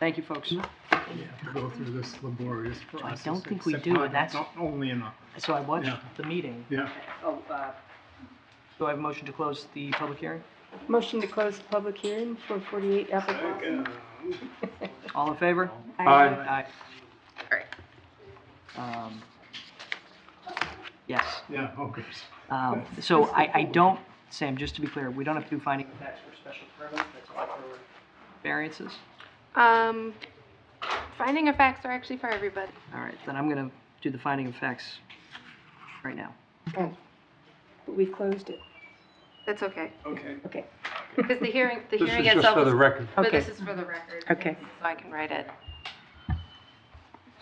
Thank you, folks. We have to go through this laborious process. don't think we except do, not- and that's- not Only in a, So I watched Yeah. the meeting. yeah, Oh, uh, Do I have a motion to close the public hearing? Motion to close the public hearing for 48 Apple Blossom. All in favor? Aye. Aye. Um, Yes, yeah, okay. um, so I, I don't, Sam, just to be clear, we don't have to do finding of facts for special permits, that's all for variances? Um, finding of facts are actually for everybody. All right, then I'm gonna do the finding of facts right now. But we closed it. That's okay. Okay. Okay. Because the hearing, the This hearing is just for itself, the is- record. but Okay. this is for the record. Okay. So I can write it.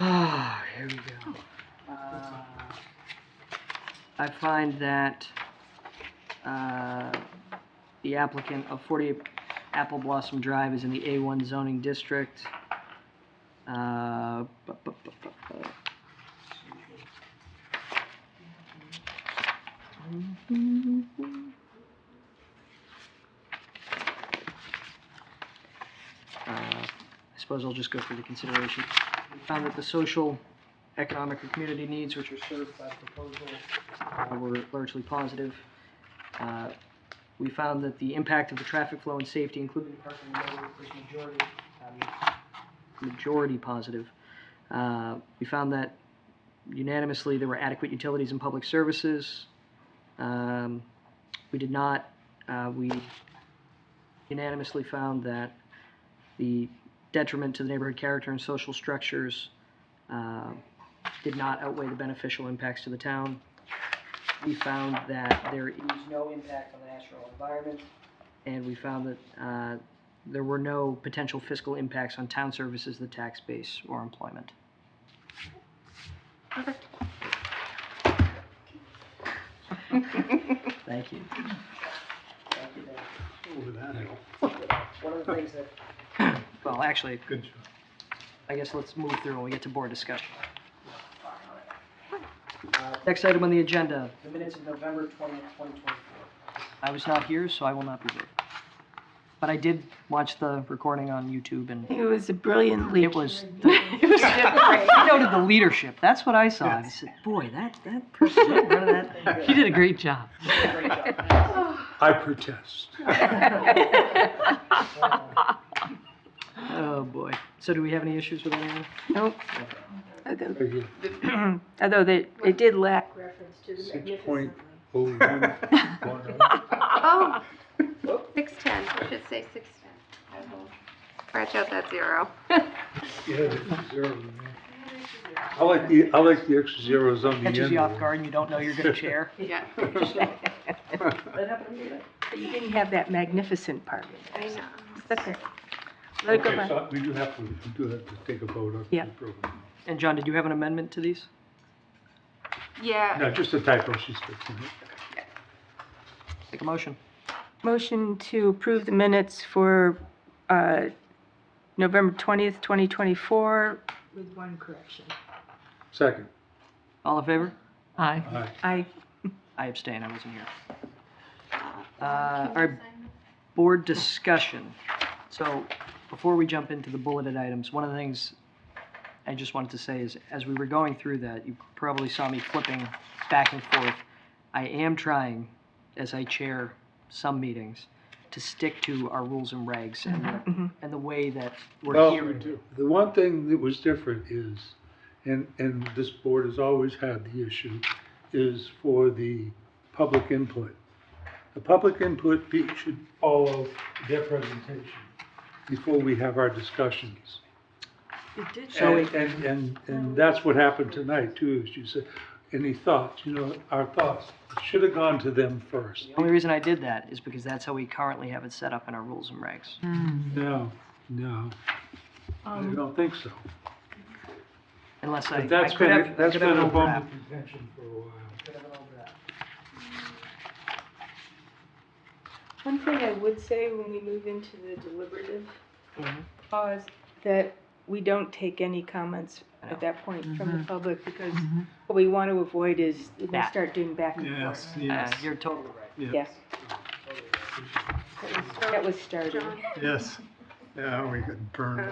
Ah, here we go. Uh, I find that uh, the applicant of 48 Apple Blossom Drive is in the A1 zoning district. Uh, bu- bu- bu- bu- bu- Uh, I suppose I'll just go through the consideration. We found that the social, economic, or community needs which are served by the proposal uh, were largely positive. Uh, We found that the impact of the traffic flow and safety, including the parking area, was majority, um, majority positive. Uh, We found that unanimously there were adequate utilities and public services. Um, We did not, uh, we unanimously found that the detriment to the neighborhood character and social structures uh, did not outweigh the beneficial impacts to the town. We found that there is no impact on the natural environment, and we found that uh, there were no potential fiscal impacts on town services, the tax base, or employment. Thank you. Thank you, Dan. Over that hill. One of the things that, well, actually, Good job. I guess let's move through when we get to board discussion. Uh, Next item on the agenda. The minutes of November twentieth, twenty twenty-four. I was not here, so I will not be there. But I did watch the recording on YouTube and It was a brilliant leap. it was, it was, I noted the leadership. That's what I saw. I said, boy, that, that person, in front of that thing." You did a great job. I protest. Oh, boy. So do we have any issues with anyone? Nope. Although Again, although they- it did lack, reference to the Six point magnificent. oh one, one oh. Oh, six ten, I should say six ten. I will Scratch out that zero. Yeah, the extra zero, man. I like the, I like the extra zeros on the end. Catches you off there. guard and you don't know you're gonna chair. Yeah, but you didn't have that magnificent part. I know. That's okay. Let it go Okay, by. so we do have to, we do have to take a vote on the Yeah. program. And John, did you have an amendment to these? Yeah, No, just a typo, she's fixing it. Take a motion. Motion to approve the minutes for uh, November 20th, 2024. With one correction. Second, All in favor? Aye. aye. I, I abstain, I wasn't here. Uh, Our board discussion. So before we jump into the bulleted items, one of the things I just wanted to say is, as we were going through that, you probably saw me flipping back and forth. I am trying, as I chair some meetings, to stick to our rules and regs and the, and the way that we're Well, here. The one thing that was different is, and, and this board has always had the issue, is for the public input. The public input pe- should follow their presentation before we have our discussions. So And, and, and, and that's what happened tonight too, is you said, any thoughts, you know, our thoughts should have gone to them first. The only reason I did that is because that's how we currently have it set up in our rules and regs. No, no, um, I don't think so. Unless I, But I that's could been, have, a- I that's could been have an a overlap. bone of contention for a while. one thing I would say when we move into the deliberative Mhm. pause, that we don't take any comments I know. at that point from the public because Mhm. what we want to avoid is we That. start doing back and Yes, forth. Uh, yes, You're totally right. yes, Yes. That was started. John. Uh, yes. Yeah, we could burn.